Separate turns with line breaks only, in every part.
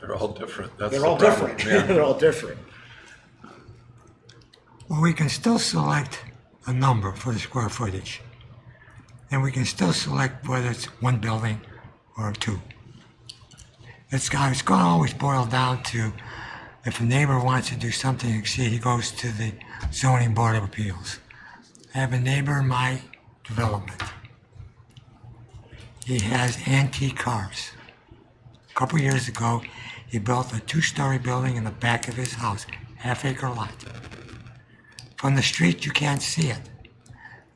They're all different. That's
They're
the
all
problem,
different.
yeah.
They're all different.
Well, we can still select a number for the square footage. And we can still select whether it's one building or two. It's, go- it's gonna always boil down to, if a neighbor wants to do something, exceed, he goes to the zoning board of appeals. I have a neighbor in my development. He has antique cars. A Couple years ago, he built a two-story building in the back of his house, half-acre lot. From the street, you can't see it.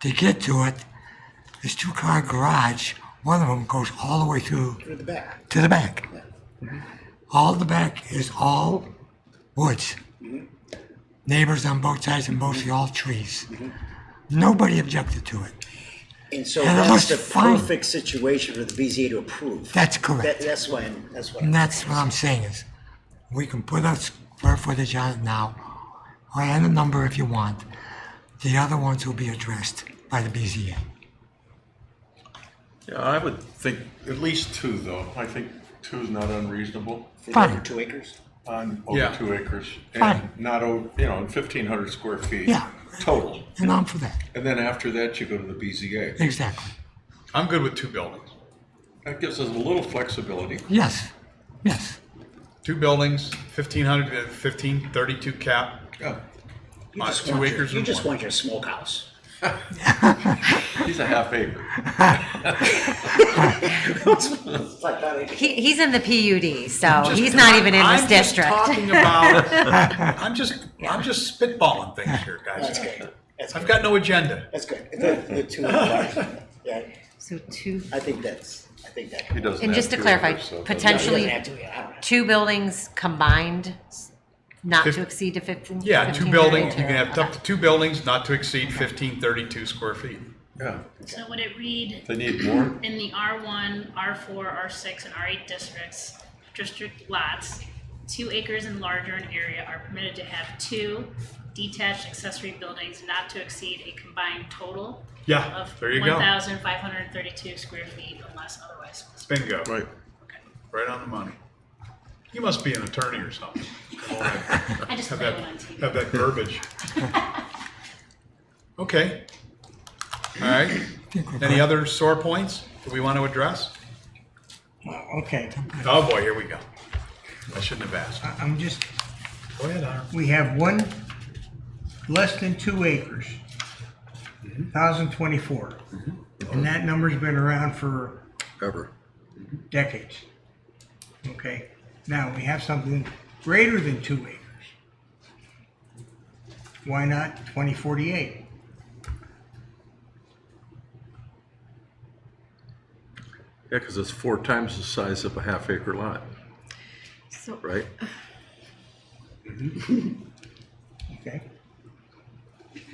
To get to it, this two-car garage, one of them goes all the way through
Through the back.
to the back. All the back is all woods. Neighbors on both sides and mostly all trees. Nobody objected to it.
And so
Yeah, that
that's the
looks fun.
perfect situation for the BZA to approve.
That's
That,
correct.
that's why, I'm- that's why.
And that's what I'm saying is, we can put our square footage on it now, or any number if you want. The other ones will be addressed by the BZA.
Yeah, I would think at least two, though. I think two is not unreasonable
For
Fine.
over two acres?
on over
Yeah.
two acres. And
Fine.
not, o- you know, fifteen hundred square feet.
Yeah.
Total.
And I'm for that.
And then after that, you go to the BZA.
Exactly.
I'm good with two buildings.
That gives us a little flexibility.
Yes. Yes.
Two buildings, 1,500, uh, 15, 32 cap.
Yeah,
You
Uh,
just
two
want your-
acres
You
and
just
one.
want your smokehouse.
he's a half acre.
It's like that acre.
He, he's in the PUD, so
Just-
Oh, he's not even in
I'm
this
just
district.
talking about- I'm just, I'm just spitballing things here,
That's
guys.
good. That's
I've
good.
got no agenda.
That's good. The, the two. Yeah,
So two,
I think that's, I think that.
He doesn't
And
have
just to
two
clarify,
acres, so it doesn't-
potential- Actually-
Yeah, you don't have to, yeah, I don't know.
two buildings combined, not
Fif-
to exceed to fifteen.
Yeah, two
15,
buildings, you
32.
can have
Okay.
up to two buildings, not to exceed 1,532 square feet.
Yeah,
So would it read
they need more.
in the R1, R4, R6, and R8 districts, district lots, two acres and larger in area are permitted to have two detached accessory buildings not to exceed a combined total
Yeah,
of
there you go.
1,532 square feet unless otherwise specified.
Bingo,
Right.
right on the money. You must be an attorney or something.
I just
Have
played
that,
one on TV.
have that verbiage. Okay. All right.
think we're
Any other sore points that we want to address?
Okay,
Oh boy, here we go. I shouldn't have asked.
I- I'm just,
Go ahead, Honor.
we have one less than two acres,
Mm-hmm.
thousand twenty-four. And that number's been around for
Ever.
decades. Okay, now we have something greater than two acres. Why not twenty forty-eight?
Yeah, because it's four times the size of a half acre lot,
So-
right?
Okay?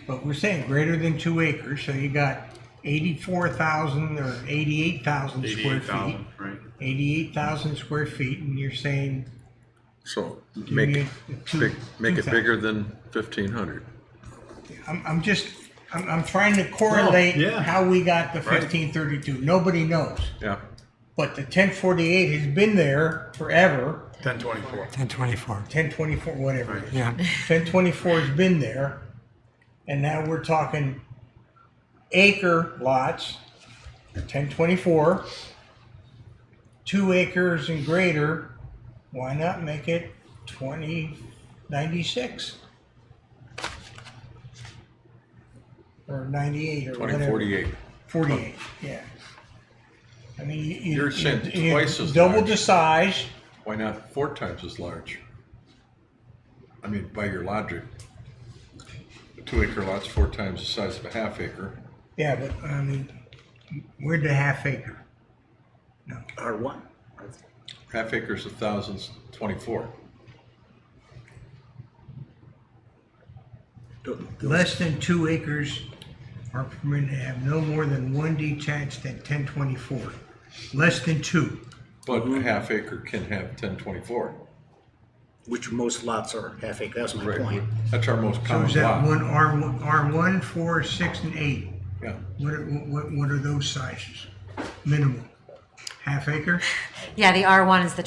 But we're saying greater than two acres, so you got eighty-four thousand or eighty-eight thousand square
Eighty-eight
feet.
thousand, right?
Eighty-eight thousand square feet, and you're saying
So make,
need
it
two-
big- make it
2,000.
bigger than fifteen hundred.
I'm, I'm just, I'm, I'm trying to correlate
yeah.
how we got the
Right.
fifteen thirty-two. Nobody knows.
Yeah,
But the ten forty-eight has been there forever,
Ten twenty-four.
1024.
ten twenty-four, whatever it is.
Yeah.
Ten twenty-four has been there, and now we're talking acre lots, ten twenty-four, two acres and greater, why not make it twenty ninety-six? Or ninety-eight or
twenty
whatever.
forty-eight.
Forty-eight, yeah. I mean, you- you.
You're saying
you-
twice as
Double
large.
the size,
Why not four times as large? I mean, by your logic, a two acre lot's four times the size of a half acre.
yeah, but I mean, we're the half acre. No.
R1.
Half acre's a thousand twenty-four.
Less than two acres are permitted to have no more than one detached at ten twenty-four. Less than two.
But a half acre can have ten twenty-four.
Which most lots are half acre. That's my
Right.
point.
That's our most
So
common
is that
lot.
one R one, R one, four, six, and eight?
Yeah,
What, are- what, what are those sizes? Minimum. Half acre?
Yeah, the R1 is the